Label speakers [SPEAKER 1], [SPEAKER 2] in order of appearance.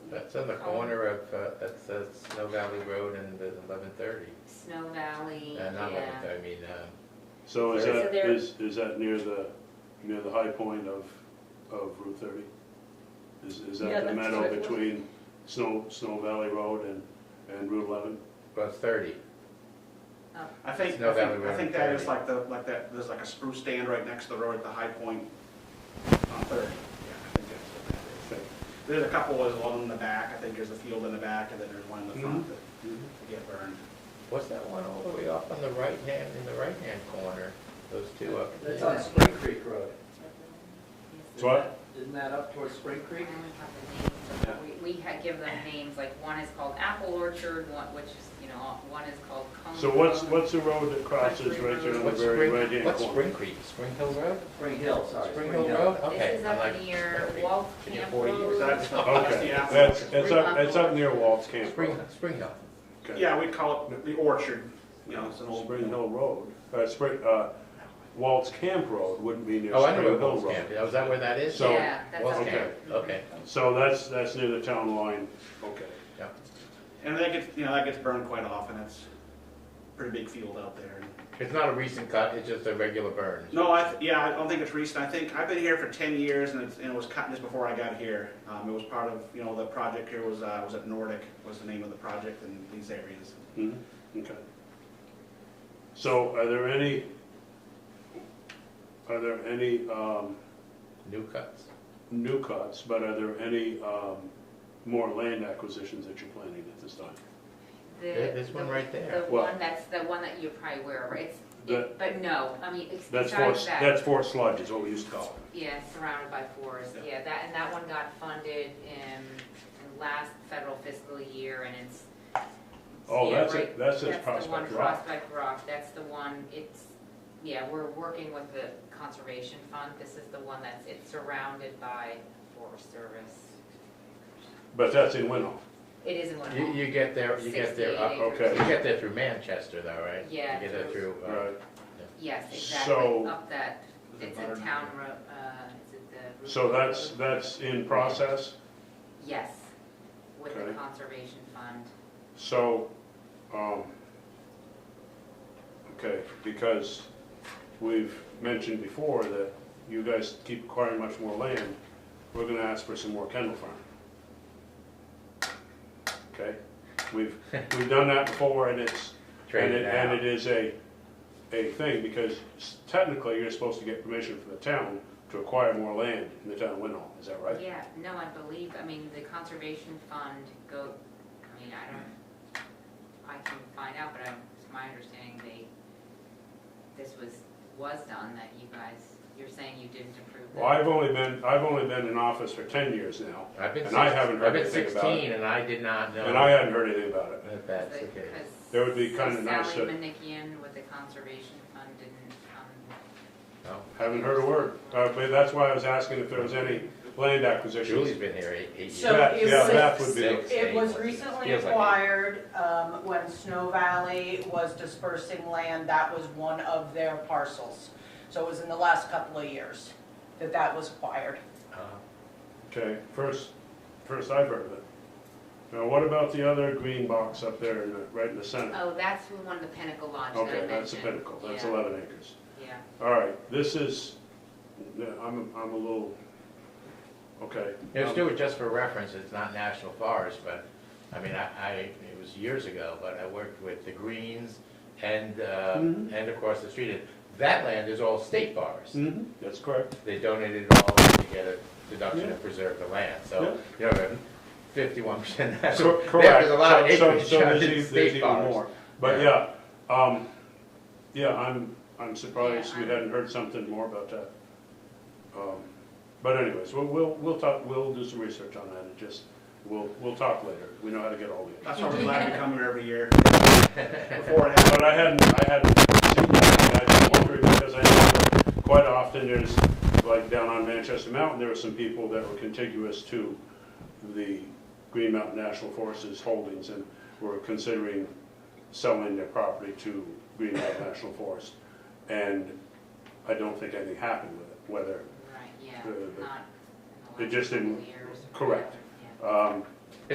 [SPEAKER 1] That's on the
[SPEAKER 2] Oh.
[SPEAKER 1] corner of, uh, that's, uh Snow Valley Road and the eleven thirty.
[SPEAKER 2] Snow Valley,
[SPEAKER 1] Uh, not eleven
[SPEAKER 2] yeah.
[SPEAKER 1] thirty, I mean, um,
[SPEAKER 3] So is
[SPEAKER 1] So
[SPEAKER 3] that,
[SPEAKER 2] there-
[SPEAKER 3] is, is that near the, near the high point of, of Route thirty? Is, is
[SPEAKER 4] Yeah,
[SPEAKER 3] that the
[SPEAKER 4] that's
[SPEAKER 3] meadow
[SPEAKER 4] what it was.
[SPEAKER 3] between Snow, Snow Valley Road and, and Route eleven?
[SPEAKER 1] well, it's thirty.
[SPEAKER 5] I think,
[SPEAKER 1] Snow
[SPEAKER 5] I
[SPEAKER 1] Valley
[SPEAKER 5] think, I
[SPEAKER 1] Road
[SPEAKER 5] think that
[SPEAKER 1] thirty.
[SPEAKER 5] is like the, like that, there's like a spruce stand right next to the road at the high point on Third. Yeah, I think that's what that is. There's a couple, there's one in the back, I think there's a field in the back, and then there's one in the front
[SPEAKER 3] Mm-hmm.
[SPEAKER 5] that
[SPEAKER 1] Mm-hmm.
[SPEAKER 5] that get burned.
[SPEAKER 1] What's that one all the way off on the right hand, in the right hand corner? Those two up.
[SPEAKER 6] That's on Spring Creek Road.
[SPEAKER 3] It's what?
[SPEAKER 6] Isn't that up towards Spring
[SPEAKER 2] I only
[SPEAKER 6] Creek?
[SPEAKER 2] have the names, of- we, we had give them names, like one is called Apple Orchard, one, which is, you know, one is called Cone.
[SPEAKER 3] So what's,
[SPEAKER 2] Cone.
[SPEAKER 3] what's the road that crosses right there on the
[SPEAKER 1] What's
[SPEAKER 3] very
[SPEAKER 1] Spring,
[SPEAKER 3] right hand corner?
[SPEAKER 1] what's Spring Creek? Spring Hill Road?
[SPEAKER 6] Spring Hill, sorry.
[SPEAKER 1] Spring Hill Road? Okay.
[SPEAKER 2] This is
[SPEAKER 1] I'm
[SPEAKER 2] up
[SPEAKER 1] like,
[SPEAKER 2] near
[SPEAKER 1] that'd be-
[SPEAKER 2] Walt
[SPEAKER 1] been here
[SPEAKER 2] Camp
[SPEAKER 1] 40 years.
[SPEAKER 2] Road.
[SPEAKER 5] That's not- that's
[SPEAKER 3] Okay,
[SPEAKER 5] the apple.
[SPEAKER 3] that's, it's up, it's up near Walt's Camp
[SPEAKER 1] Spring,
[SPEAKER 3] Road.
[SPEAKER 1] Spring Hill.
[SPEAKER 3] Okay.
[SPEAKER 5] Yeah, we call it the orchard, you know, it's an old.
[SPEAKER 3] Spring Hill Road, uh, Spring, uh, Walt's Camp Road wouldn't be near
[SPEAKER 1] Oh, I
[SPEAKER 3] Spring
[SPEAKER 1] know where
[SPEAKER 3] Hill
[SPEAKER 1] Wolf's
[SPEAKER 3] Road.
[SPEAKER 1] Camp is. Oh, Is that where that is?
[SPEAKER 3] So-
[SPEAKER 2] Yeah, that's
[SPEAKER 1] Wolf's
[SPEAKER 2] up
[SPEAKER 3] okay.
[SPEAKER 1] Camp.
[SPEAKER 2] there.
[SPEAKER 1] Okay,
[SPEAKER 3] So that's, that's near the town line, okay.
[SPEAKER 1] yeah.
[SPEAKER 5] And that gets, you know, that gets burned quite often, it's a pretty big field out there.
[SPEAKER 1] It's not a recent cut, it's just a regular burn.
[SPEAKER 5] No, I, th- yeah, I don't think it's recent. I think, I've been here for ten years and it's, and it was cut just before I got here. Um, it was part of, you know, the project here was, uh, was at Nordic, was the name of the project in these areas.
[SPEAKER 3] Mhm, Okay. So are there any, are there any um,
[SPEAKER 1] New cuts.
[SPEAKER 3] new cuts, but are there any um, more land acquisitions that you're planning at this time?
[SPEAKER 2] The-
[SPEAKER 1] There- there's one
[SPEAKER 2] the-
[SPEAKER 1] right there.
[SPEAKER 2] The
[SPEAKER 3] Well-
[SPEAKER 2] one that's, the one that you're probably aware of, it's,
[SPEAKER 3] That-
[SPEAKER 2] it- but no, I mean, it's
[SPEAKER 3] That's four,
[SPEAKER 2] besides that.
[SPEAKER 3] that's four sludge is what we used to call it.
[SPEAKER 2] Yeah, surrounded by forest, yeah, that, and that one got funded in, in last federal fiscal year, and it's.
[SPEAKER 3] Oh,
[SPEAKER 2] yeah,
[SPEAKER 3] that's it-
[SPEAKER 2] right-
[SPEAKER 3] that's it,
[SPEAKER 2] the one,
[SPEAKER 3] Prospect Rock.
[SPEAKER 2] Prospect Rock, that's the one, it's, yeah, we're working with the conservation fund, this is the one that's, it's surrounded by Forest Service.
[SPEAKER 3] But that's in Winhoff.
[SPEAKER 2] It is in one
[SPEAKER 1] You, you get there, you get there, up-
[SPEAKER 3] uh, okay.
[SPEAKER 1] you get there through Manchester though, right?
[SPEAKER 2] Yeah,
[SPEAKER 1] You get there through,
[SPEAKER 2] through-
[SPEAKER 1] uh,
[SPEAKER 3] Right.
[SPEAKER 2] Yes,
[SPEAKER 3] So-
[SPEAKER 2] exactly, up that,
[SPEAKER 5] The
[SPEAKER 2] it's
[SPEAKER 5] barn.
[SPEAKER 2] a town road, uh, is it the?
[SPEAKER 3] So that's, that's in process.
[SPEAKER 2] Yes, with the
[SPEAKER 3] Okay.
[SPEAKER 2] conservation fund.
[SPEAKER 3] So, um, okay, because we've mentioned before that you guys keep acquiring much more land, we're gonna ask for some more Kendall Farm. Okay, we've, we've done that before and it's, and
[SPEAKER 1] traded
[SPEAKER 3] it, and it
[SPEAKER 1] out.
[SPEAKER 3] is a, a thing, because technically you're supposed to get permission from the town to acquire more land in the town of Winhall, is that right?
[SPEAKER 2] Yeah, no, I believe, I mean, the conservation fund go, I mean, I don't, I can find out, but I'm, it's my understanding they, this was, was done, that you guys, you're saying you didn't approve that.
[SPEAKER 3] Well, I've only been, I've only been in office for ten years now,
[SPEAKER 1] I've been
[SPEAKER 3] and I
[SPEAKER 1] six-
[SPEAKER 3] haven't heard
[SPEAKER 1] I've been
[SPEAKER 3] anything about it.
[SPEAKER 1] sixteen and I did not know.
[SPEAKER 3] And I hadn't heard anything about it.
[SPEAKER 1] That that's the case.
[SPEAKER 2] Because
[SPEAKER 3] That would be kinda nice
[SPEAKER 2] Sally
[SPEAKER 3] to-
[SPEAKER 2] Manikian with the conservation fund didn't, um,
[SPEAKER 1] No.
[SPEAKER 3] Haven't heard a word. Uh, but that's why I was asking if there was any land
[SPEAKER 1] Julie's
[SPEAKER 3] acquisitions.
[SPEAKER 1] been here eight, eight
[SPEAKER 4] So
[SPEAKER 1] years.
[SPEAKER 3] That-
[SPEAKER 4] it
[SPEAKER 3] yeah,
[SPEAKER 4] was-
[SPEAKER 3] that would be-
[SPEAKER 1] Six,
[SPEAKER 4] It
[SPEAKER 1] eight,
[SPEAKER 4] was
[SPEAKER 1] whatever.
[SPEAKER 4] recently
[SPEAKER 1] Feels like eight.
[SPEAKER 4] acquired, um, when Snow Valley was dispersing land, that was one of their parcels. So it was in the last couple of years that that was acquired.
[SPEAKER 1] Uh,
[SPEAKER 3] Okay, first, first I've heard of it. Now, what about the other green box up there in the, right in the center?
[SPEAKER 2] oh, that's the one, the Pinnacle Lodge that Oh, I
[SPEAKER 3] Okay, that's the
[SPEAKER 2] mentioned.
[SPEAKER 3] pinnacle. That's
[SPEAKER 2] Yeah,
[SPEAKER 3] eleven acres.
[SPEAKER 2] Yeah,
[SPEAKER 3] All right, this is, yeah, I'm, I'm a little, okay. Um,
[SPEAKER 1] It was Stuart, just for reference, it's not national forest, but, I mean, I, I, it was years ago, but I worked with the Greens and, uh,
[SPEAKER 3] Mhm.
[SPEAKER 1] and across the street. And That land is all state forest.
[SPEAKER 3] hmm that's correct.
[SPEAKER 1] They donated it all to get a deduction to
[SPEAKER 3] Yeah.
[SPEAKER 1] preserve the land, so, you know, fifty-one percent.
[SPEAKER 3] So-
[SPEAKER 1] There's a lot of
[SPEAKER 3] correct. So- so-
[SPEAKER 1] acreage
[SPEAKER 3] so
[SPEAKER 1] shot
[SPEAKER 3] there's e-
[SPEAKER 1] in
[SPEAKER 3] there's
[SPEAKER 1] state
[SPEAKER 3] even more.
[SPEAKER 1] forest.
[SPEAKER 3] But yeah,
[SPEAKER 1] Yeah.
[SPEAKER 3] um, yeah, I'm, I'm surprised
[SPEAKER 2] Yeah,
[SPEAKER 3] we
[SPEAKER 2] I'm-
[SPEAKER 3] hadn't heard something more about that. Um, But anyways, we'll, we'll, we'll talk, we'll do some research on that and just, we'll, we'll talk later. We know how to get all the.
[SPEAKER 5] That's why we're glad to come here every year. Before it happened.
[SPEAKER 3] But I hadn't, I hadn't seen that, I was wondering, because I know quite often there's, like down on Manchester Mountain, there were some people that were contiguous to the Green Mountain National Forest's holdings and were considering selling their property to Green Mountain National Forest. And I don't think anything happened with it, whether
[SPEAKER 2] right, yeah,
[SPEAKER 3] Uh,
[SPEAKER 2] not in
[SPEAKER 3] but
[SPEAKER 2] the
[SPEAKER 3] it
[SPEAKER 2] last
[SPEAKER 3] just
[SPEAKER 2] couple
[SPEAKER 3] didn't-
[SPEAKER 2] years or
[SPEAKER 3] correct.
[SPEAKER 2] whatever, yeah.
[SPEAKER 3] Um,